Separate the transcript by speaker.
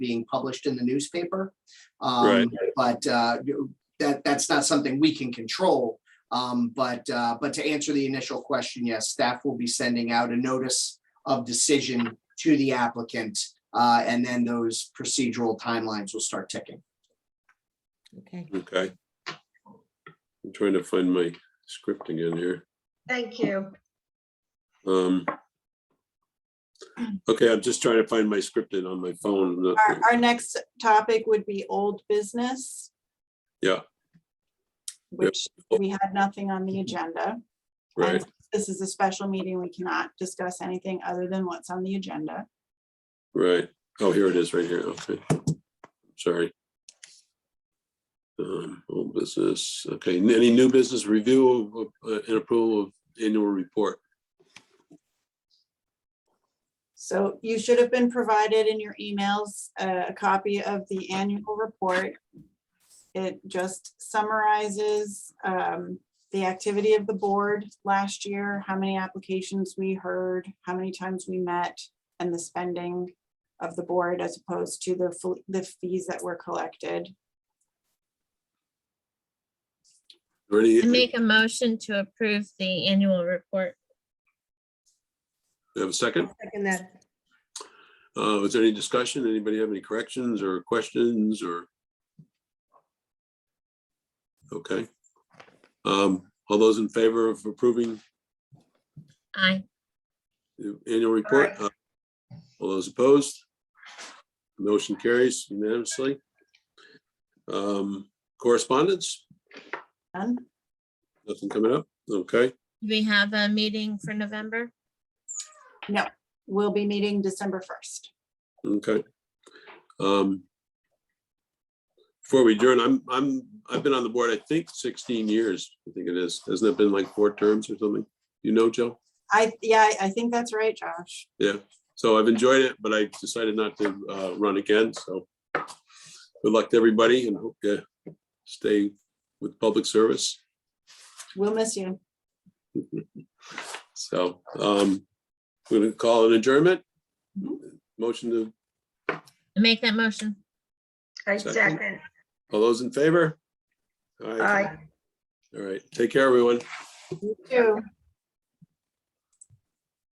Speaker 1: being published in the newspaper.
Speaker 2: Right.
Speaker 1: Um, but, uh, that, that's not something we can control. Um, but, uh, but to answer the initial question, yes, staff will be sending out a notice of decision to the applicant. Uh, and then those procedural timelines will start ticking.
Speaker 3: Okay,
Speaker 2: Okay. I'm trying to find my script again here.
Speaker 4: Thank you.
Speaker 2: Um. Okay, I'm just trying to find my script in on my phone. Not-
Speaker 5: Our, our next topic would be old business.
Speaker 2: Yeah. Mm-hmm.
Speaker 5: Which we had nothing on the agenda.
Speaker 2: Right,
Speaker 5: This is a special meeting. We cannot discuss anything other than what's on the agenda.
Speaker 2: right. Oh, here it is, right here. Okay. Sorry. Um, old business. Okay, n- any new business review of, uh, and approval of annual report?
Speaker 5: So you should have been provided in your emails uh, a copy of the annual report. It just summarizes um, the activity of the board last year, how many applications we heard, how many times we met, and the spending of the board as opposed to the fe- the fees that were collected.
Speaker 2: Or any-
Speaker 6: I Make a motion to approve the annual report.
Speaker 2: Have a second?
Speaker 4: Second that.
Speaker 2: Uh, is there any discussion? Anybody have any corrections or questions or? Okay. Um, all those in favor of approving
Speaker 6: Aye.
Speaker 2: the annual report? Uh, All those opposed? Motion carries unanimously. Um, correspondence,
Speaker 5: Done?
Speaker 2: nothing coming up, okay?
Speaker 6: Do We have a meeting for November.
Speaker 5: We'll be meeting December 1st.
Speaker 2: Okay. Um, Before we adjourn, I'm, I'm, I've been on the board, I think sixteen years, I think it is. Hasn't it been like four terms or something? You know, Joe?
Speaker 5: I, yeah, I I think that's right, Josh.
Speaker 2: So I've enjoyed it, but I decided not to uh, run again, so. Good luck to everybody and hope you stay with public service.
Speaker 5: We'll miss you.
Speaker 2: So, um, we're gonna call an adjournment. Motion to,
Speaker 6: I Make that motion.
Speaker 4: I
Speaker 2: Second.
Speaker 4: second.
Speaker 2: all those in favor? All right,
Speaker 4: Aye.
Speaker 2: all right, take care, everyone.
Speaker 5: You too.